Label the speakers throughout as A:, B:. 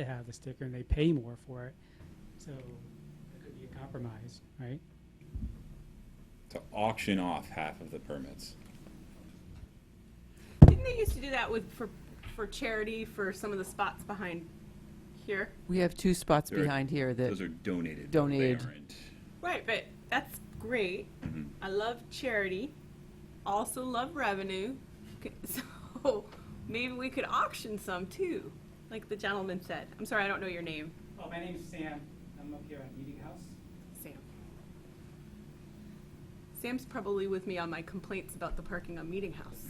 A: to have the sticker and they pay more for it. So it could be a compromise, right?
B: to auction off half of the permits.
C: Didn't they used to do that with, for, for charity for some of the spots behind here?
D: We have two spots
B: There are-
D: behind here
B: Those
D: that,
B: are donated. though, they
D: Donated.
B: aren't.
C: Right, but that's great. I love charity, also love revenue. C- So maybe we could auction some too, like the gentleman said. I'm sorry, I don't know your name,
A: Well, my name's Sam. I'm up here on Meeting House.
C: Sam. Sam's probably with me on my complaints about the parking on Meeting House,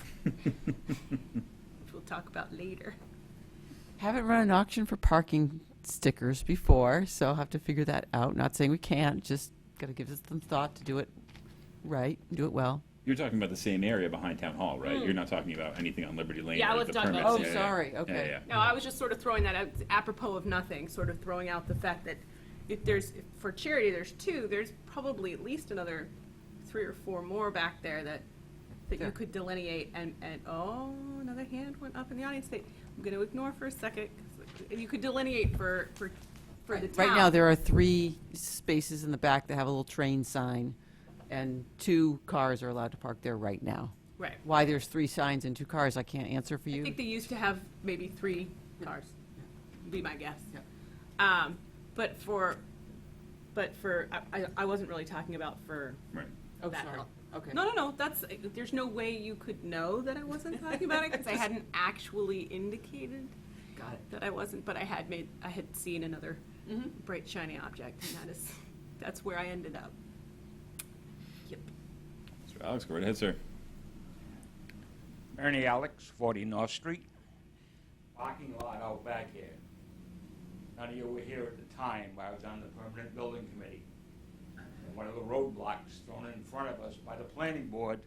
C: which we'll talk about later.
D: haven't run an auction for parking stickers before, so I'll have to figure that out. Not saying we can't, just gotta give us some thought to do it right, do it well.
B: You're talking about the same area behind Town Hall, right? You're not talking about anything on Liberty Lane.
C: Hmm. Yeah, I
B: like
C: was
B: the
C: talking about-
B: permits.
D: Oh,
B: Yeah, yeah,
D: sorry,
B: yeah,
D: okay.
B: yeah, yeah.
C: No, I was just sort of throwing that out apropos of nothing, sort of throwing out the fact that if there's, if for charity, there's two, there's probably at least another three or four more back there that, that you
D: Sure.
C: could delineate and, and, oh, another hand went up in the audience that I'm gonna ignore for a second. 'cause You could delineate for, for, for the town.
D: Right now, there are three spaces in the back that have a little train sign, and two cars are allowed to park there right now.
C: Right.
D: Why there's three signs and two cars, I can't answer for
C: I
D: you.
C: think they used to have maybe three cars, would be my guess.
D: Yeah.
C: Um, but for, but for, I- I, I wasn't really talking about for
B: Right.
D: Oh,
C: that
D: sorry.
C: help.
D: Okay.
C: No, no, no. That's there's no way you could know that I wasn't talking about it because I hadn't actually indicated
D: Got it.
C: that I wasn't, but I had made I had seen another bright shiny object, and that is that's where I ended up. Yep.
B: Mr. Alex, go right ahead, sir.
E: Ernie Alex, 40 North Street. Parking lot out back here. None of you were here at the time, I was on the permanent building committee. And one of the roadblocks thrown in front of us by the planning board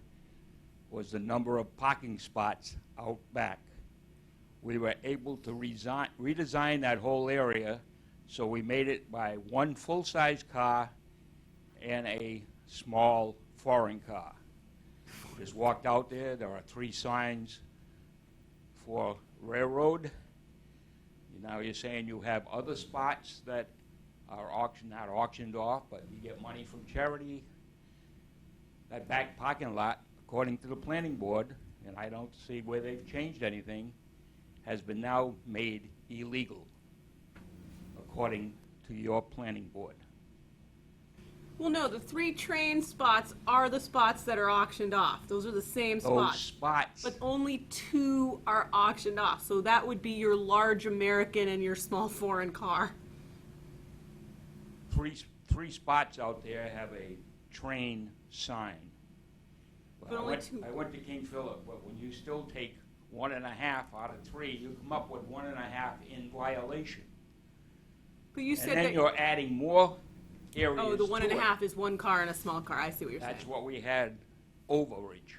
E: was the number of parking spots out back. We were able to resign, redesign that whole area, so we made it by one full-size car and a small foreign car. Just walked out there, there are three signs for railroad. Now you're saying you have other spots that are auctioned, not auctioned off, but you get money from charity. That back parking lot, according to the planning board, and I don't see where they've changed anything, has been now made illegal, according to your planning board.
C: Well, no, the three train spots are the spots that are auctioned off. Those are the same
E: Those
C: spots.
E: spots,
C: But only two are auctioned off, so that would be your large American and your small foreign car.
E: three, three spots out there have a train sign. Well,
C: But
E: I
C: only
E: went-
C: two.
E: I went to King Philip, but when you still take one and a half out of three, you come up with one and a half in violation.
C: But you
E: And
C: said
E: then
C: that.
E: you're adding more areas
C: Oh, the one and a
E: to it.
C: half is one car and a small car. I see what you're saying.
E: That's what we had overage.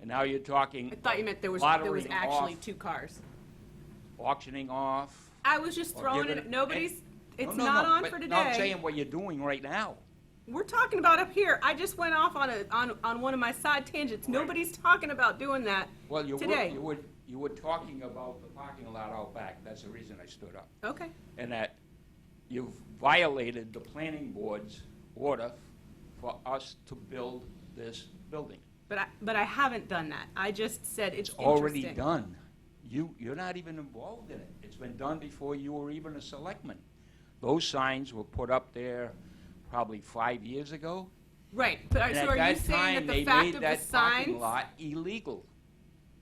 E: And now you're talking.
C: I thought you meant there was, there was
E: lotterying
C: actually
E: off,
C: two cars.
E: Auctioning off.
C: I was just
E: or
C: throwing
E: giving-
C: it, nobody's,
E: No,
C: it's
E: no,
C: not
E: no,
C: on
E: but
C: for
E: no, I'm
C: today.
E: saying what you're doing right now.
C: We're talking about up here. I just went off on a, on, on one of my side tangents. Nobody's talking about doing that
E: Well, you were,
C: today.
E: you were, you were talking about the parking lot out back, that's the reason I stood up.
C: Okay.
E: And that you've violated the planning board's order for us to build this building.
C: But I, but I haven't done that. I just said it's
E: Already
C: interesting.
E: done. You, you're not even involved in it. It's been done before you were even a selectman. Those signs were put up there probably five years ago.
C: Right, but are-
E: And
C: so
E: at
C: are you
E: that
C: saying
E: time,
C: that the
E: they
C: fact
E: made
C: of the
E: that parking
C: signs?
E: lot illegal,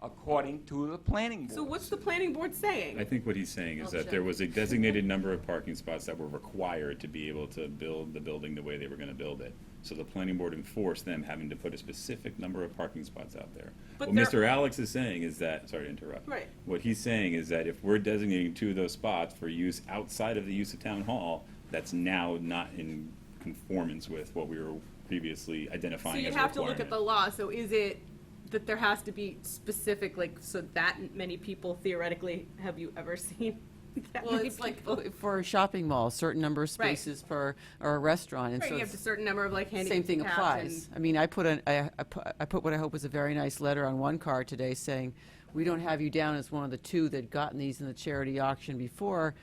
E: according to the planning board.
C: So what's the planning board saying?
B: I think what he's saying is that there was a designated number of parking spots that were required to be able to build the building the way they were gonna build it. So the planning board enforced them having to put a specific number of parking spots out there.
C: But
B: What
C: there-
B: Mr. Alex is saying is that, sorry to interrupt.
C: Right.
B: What he's saying is that if we're designating two of those spots for use outside of the use of town hall, that's now not in conformance with what we were previously
C: So
B: identifying
C: you'd
B: as a
C: have to look at the
B: requirement.
C: law, so is it that there has to be specific, like, so that many people theoretically, have you ever seen? that
D: Well,
C: many
D: it's like
C: people?
D: uh, for a shopping mall, certain number of
C: Right.
D: spaces for, or a restaurant, and
C: Right,
D: so
C: you have a
D: it's-
C: certain number of like handicapped.
D: same thing
C: and-
D: applies. I mean, I put an, I, I pu- I put what I hope was a very nice letter on one car today saying, we don't have you down as one of the two that gotten these in the charity auction before,